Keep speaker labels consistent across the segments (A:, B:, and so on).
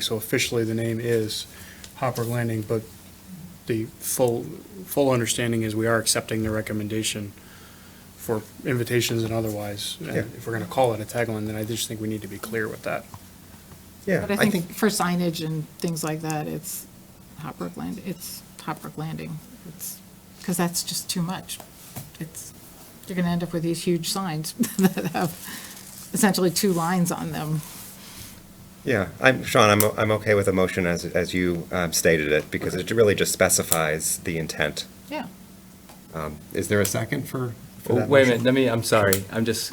A: So officially, the name is Hopper Landing, but the full, full understanding is we are accepting the recommendation for invitations and otherwise. And
B: Yeah.
A: if we're going to call it a tagline, then I just think we need to be clear with that.
B: Yeah,
C: But I think for signage and things like that, it's Hop Brook Land, it's Hop Brook Landing. It's, because that's just too much. It's, you're going to end up with these huge signs that have essentially two lines on them.
B: yeah, I'm, Sean, I'm, o- I'm okay with a motion as, as you um, stated it, because it really just specifies the intent.
C: Yeah.
B: Is there a second for? for
D: Oh,
B: that
D: Wait a
B: motion?
D: minute, let me, I'm sorry, I'm just,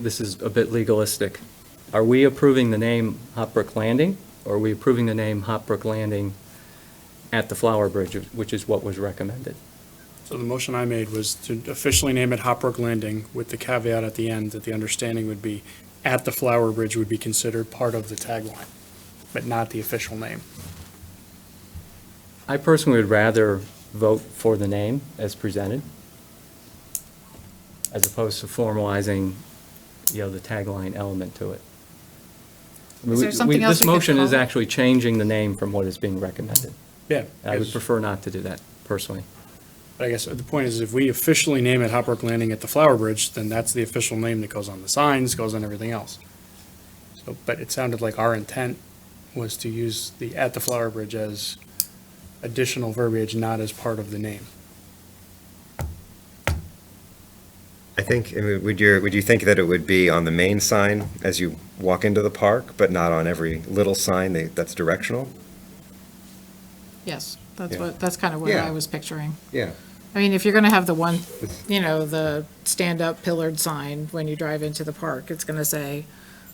D: this is a bit legalistic. Are we approving the name Hop Brook Landing, or are we approving the name Hop Brook Landing at the Flower Bridge, which is what was recommended?
A: So the motion I made was to officially name it Hopbrook Landing with the caveat at the end that the understanding would be at the Flower Bridge would be considered part of the tagline, but not the official name.
D: I personally would rather vote for the name as presented, as opposed to formalizing, you know, the tagline element to it. I mean,
C: Is there
D: we- we-
C: something else
D: This
C: we could
D: motion is
C: call it?
D: actually changing the name from what is being recommended.
A: Yeah.
D: I would
A: because-
D: prefer not to do that, personally.
A: But I guess the point is, if we officially name it Hopbrook Landing at the Flower Bridge, then that's the official name that goes on the signs, goes on everything else. So, but it sounded like our intent was to use the at the Flower Bridge as additional verbiage, not as part of the name.
B: I think, I mean, would you, would you think that it would be on the main sign as you walk into the park, but not on every little sign that- that's directional?
C: Yes, that's
B: Yeah.
C: what, that's kind of what
B: Yeah.
C: I was picturing.
B: Yeah.
C: I mean, if you're going to have the one, you know, the stand-up pillared sign when you drive into the park, it's going to say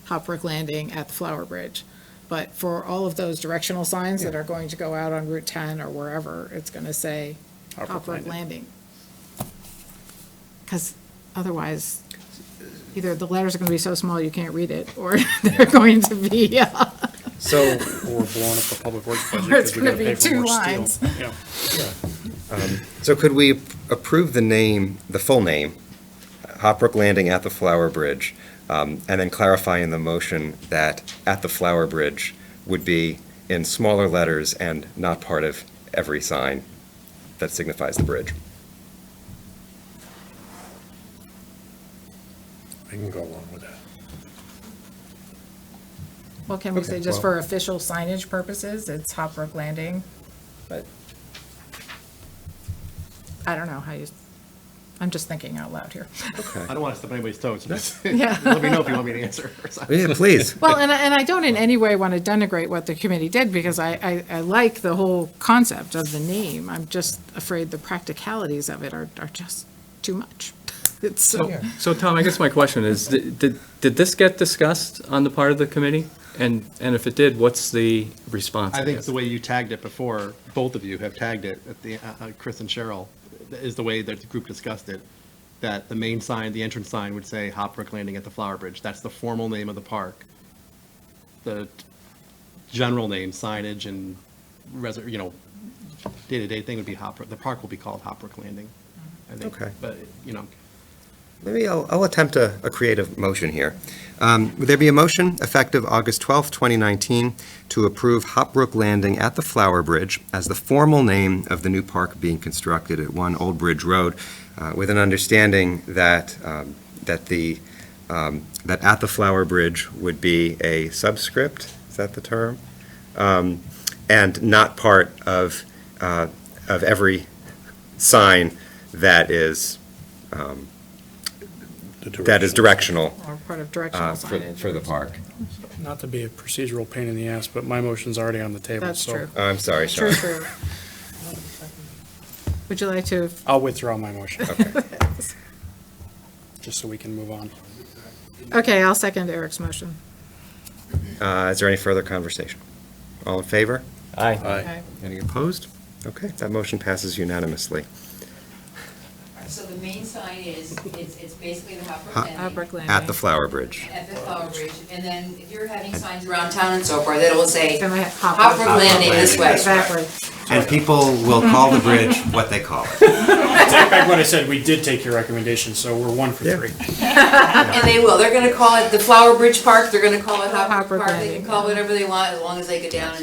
C: Hop Brook Landing at the Flower Bridge. But for all of those directional signs that are going to go out on Route 10 or wherever, it's going to say
A: Hop Brook
C: Hop Brook
A: Landing.
C: Landing. Because otherwise, either the letters are going to be so small you can't read it, or they're going to be, uh,
A: So we're blowing up the public works budget
C: It's
A: because we gotta
C: gonna be
A: pay for
C: two
A: more
C: lines.
A: steel. Yeah.
B: So could we approve the name, the full name, Hop Brook Landing at the Flower Bridge, um, and then clarify in the motion that at the Flower Bridge would be in smaller letters and not part of every sign that signifies the bridge?
E: I can go along with that.
C: well, can we
B: Okay,
C: say just
B: well-
C: for official signage purposes, it's Hop Brook Landing? But I don't know how you, I'm just thinking out loud here.
B: Okay.
F: I don't want to step on anybody's toes. Just
C: Yeah.
F: Let me know if you want me to answer.
B: Yeah, please.
C: Well, and I, and I don't in any way want to denigrate what the committee did, because I, I, I like the whole concept of the name. I'm just afraid the practicalities of it are, are just too much. It's so,
D: So, so Tom, I guess my question is, did, did did this get discussed on the part of the committee? And, and if it did, what's the response?
F: I think
D: guess?
F: the way you tagged it before, both of you have tagged it, at the, uh, uh, Chris and Cheryl, is the way that the group discussed it. That the main sign, the entrance sign would say Hop Brook Landing at the Flower Bridge. That's the formal name of the park. The general name signage and res, you know, day-to-day thing would be Hop, Brook- the park will be called Hop Brook Landing. I think.
B: Okay.
F: But, you know,
B: Maybe I'll, I'll attempt a, a creative motion here. Um, Would there be a motion effective August 12th, 2019, to approve Hop Brook Landing at the Flower Bridge as the formal name of the new park being constructed at 1 Old Bridge Road, uh, with an understanding that, um, that the, um, that at the Flower Bridge would be a subscript, is that the term? Um, And not part of, uh, of every sign that is, um, that is directional
C: or part of directional
B: uh, for,
C: signage.
B: for the park.
A: Not to be a procedural pain in the ass, but my motion's already on the table,
C: That's
A: so
C: true.
B: Oh, I'm sorry,
C: True,
B: Sean.
C: true. Would you like to,
A: I'll withdraw my motion,
B: Okay.
A: just so we can move on.
C: okay, I'll second Eric's motion.
B: Uh, Is there any further conversation? All in favor?
D: Aye.
C: Okay.
B: Any opposed? Okay, that motion passes unanimously.
G: So the main sign is, it's, it's basically the Hopper
B: Hop-
G: Landing.
C: Hop Brook Landing.
B: At the Flower Bridge.
G: At the Flower Bridge, and then if you're having signs around town and so forth, it'll say
C: Then we have Hop Brook.
G: Hopper Landing this way.
C: Backwards.
B: And people will call the bridge what they call it.
A: Take back what I said, we did take your recommendation, so we're one for
B: Yeah.
A: three.
G: And they will, they're gonna call it the Flower Bridge Park, they're gonna call it Hopper
C: Hopper
G: Park, they
C: Landing,
G: can call it whatever they want, as long as they get down and